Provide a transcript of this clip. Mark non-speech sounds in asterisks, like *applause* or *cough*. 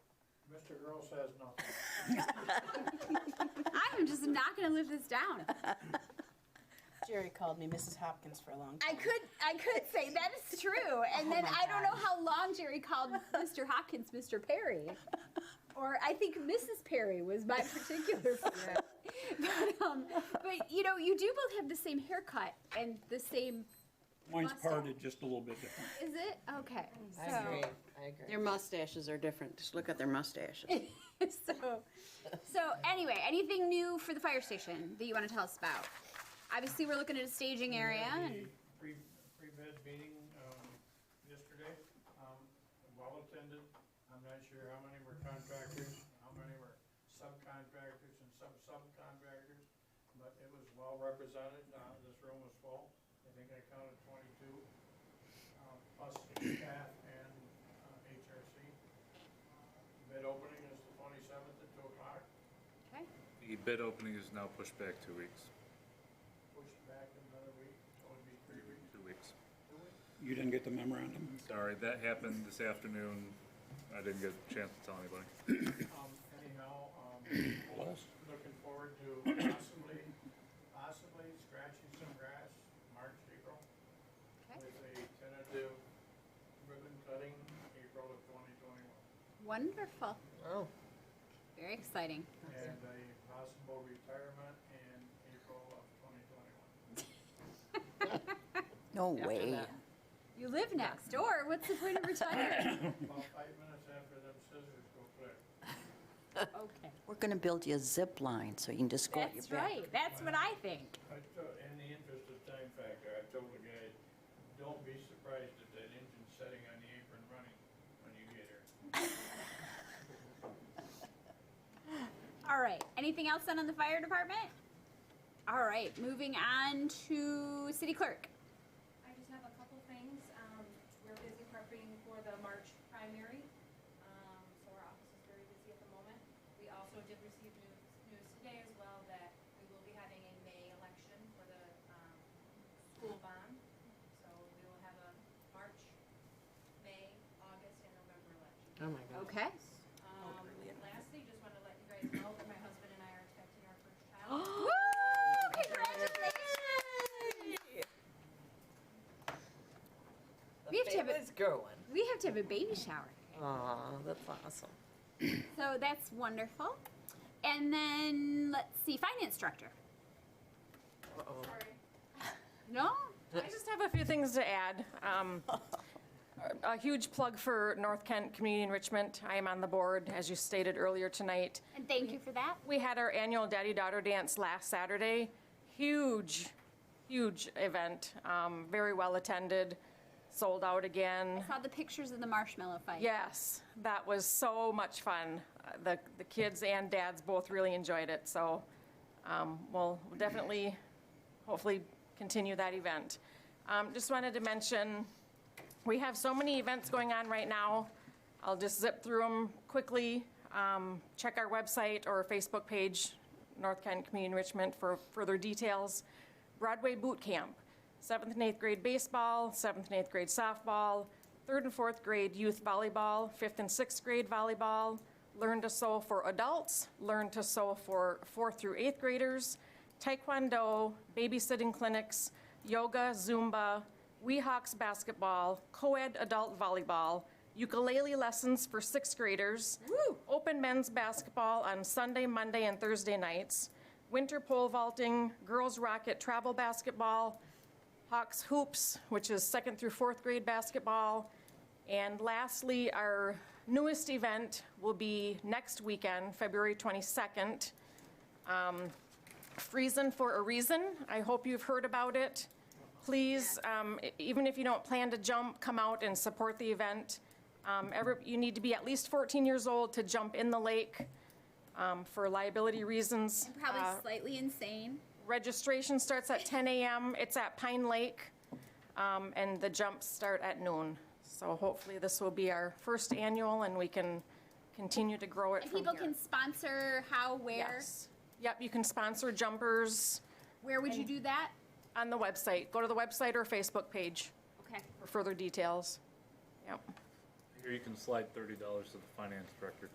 Mr. Earl says nothing. I'm just not gonna live this down. Jerry called me Mrs. Hopkins for a long time. I could, I could say that is *laughs* true, and Oh then my I don't know how long Jerry called Mr. Hopkins Mr. Perry, or I think Mrs. Perry was my *laughs* particular favorite. But, um, but you know, you do both have the same haircut and the same. Mine's Mustard. parted just a little bit different. Is it okay? I so, agree, I agree. Their mustaches are different. Just look at their mustaches. *laughs* so, so anyway, anything new for the fire station that you want to tell us about? Obviously, we're looking at a staging area, and The Pre, pre-bid meeting, um, yesterday, um, well attended. I'm not sure how many were contractors, how many were subcontractors and sub-subcontractors, but it was well represented. Uh, this room was full. I think I counted twenty-two, um, plus staff and, uh, HRC. Bid opening Uh, is the twenty-seventh at two o'clock, okay, The bid opening is now pushed back two weeks, pushed back another week, so it'd be three weeks. two weeks. You didn't get the memorandum? Sorry, that happened this afternoon. I didn't get a chance to tell anybody. Um, anyhow, um, looking forward to possibly, possibly scratching some grass, March, April, okay, with a tentative ribbon cutting, April of twenty twenty-one. wonderful, Oh, very exciting. And a possible retirement in April of twenty twenty-one. No After way. that. You live next door. What's the point of *coughs* retiring? About five minutes after them scissors go click. okay, We're going to build you a zip line so you can just go at your that's back. right. That's what I think. I told, in the interest of time factor, I told the guy, don't be surprised if that engine's setting on the apron running when you get here. All right. Anything else done on the fire department? All right. Moving on to city clerk. I just have a couple things. Um, we're busy prepping for the March primary, um, so our office is very busy at the moment. We also did receive news, news today as well that we will be having a May election for the, um, school bond. So we will have a March, May, August, and November election. oh my God. *gasps* Okay. Um, lastly, just wanted to let you guys know that my husband and I are expecting our first *gasps* child. *gasps* Woo! Congratulations! We have to have a- It's growing. We have to have a baby shower. Aw, that's awesome. So that's wonderful. And then let's see, finance director. Uh-oh. Sorry. No? I just have a few things to add. Um, A huge plug for North Kent Community Enrichment. I am on the board, as you stated earlier tonight. And thank you for that. We had our annual daddy-daughter dance last Saturday. Huge, huge event, um, very well-attended, sold out again. Saw the pictures of the marshmallow fight. Yes, that was so much fun. Uh, The, the kids and dads both really enjoyed it, so um, we'll definitely, hopefully, continue that event. Um, Just wanted to mention, we have so many events going on right now. I'll just zip through them quickly. Um, Check our website or Facebook page, North Kent Community Enrichment, for further details. Broadway Boot Camp, seventh and eighth grade baseball, seventh and eighth grade softball, third and fourth grade youth volleyball, fifth and sixth grade volleyball, learn to sew for adults, learn to sew for fourth through eighth graders, taekwondo, babysitting clinics, yoga, Zumba, Weehawks basketball, co-ed adult volleyball, ukulele lessons for sixth graders, open men's basketball on Sunday, Monday, and Thursday nights, winter pole vaulting, girls rocket travel basketball, Hawks Hoops, which is second through fourth grade basketball. And lastly, our newest event will be next weekend, February 22nd. Friesen for a Reason. I hope you've heard about it. Please, um, e- even if you don't plan to jump, come out and support the event. Um, every- You need to be at least 14 years old to jump in the lake um, for liability reasons. Probably Uh, slightly insane. Registration starts at 10 a.m. It's at Pine Lake, um, and the jumps start at noon. So hopefully this will be our first annual, and we can continue to grow it And from here. people can sponsor how, where, Yes. Yep, you can sponsor jumpers where would you do that? on the website. Go to the website or Facebook page Okay. for further details. Yep. Here you can slide thirty dollars to the finance director